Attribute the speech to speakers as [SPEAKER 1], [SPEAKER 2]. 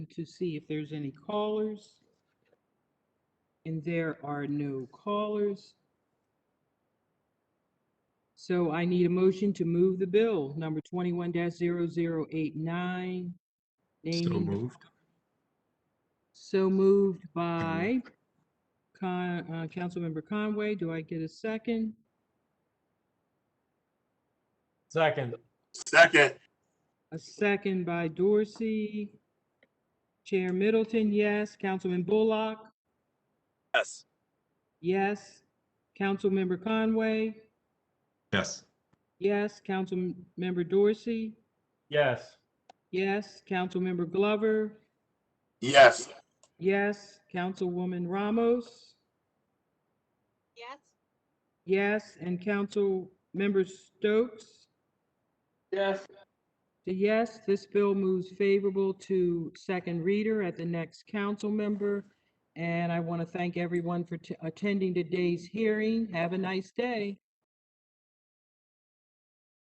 [SPEAKER 1] to see if there's any callers. And there are no callers. So I need a motion to move the bill, number 21-0089.
[SPEAKER 2] So
[SPEAKER 1] naming-
[SPEAKER 2] moved.
[SPEAKER 1] So moved by Con, uh, Councilmember Conway. Do I get a second?
[SPEAKER 3] Second,
[SPEAKER 4] Second,
[SPEAKER 1] A second by Dorsey. Chair Middleton, yes. Councilman Bullock,
[SPEAKER 4] yes.
[SPEAKER 1] yes. Councilmember Conway,
[SPEAKER 2] Yes.
[SPEAKER 1] yes. Councilmember Dorsey,
[SPEAKER 3] yes.
[SPEAKER 1] yes. Councilmember Glover,
[SPEAKER 4] Yes,
[SPEAKER 1] yes. Councilwoman Ramos,
[SPEAKER 5] Yes.
[SPEAKER 1] yes. And Councilmember Stokes,
[SPEAKER 3] Yes.
[SPEAKER 1] The yes, this bill moves favorable to second reader at the next council member. And I want to thank everyone for t- attending today's hearing. Have a nice day.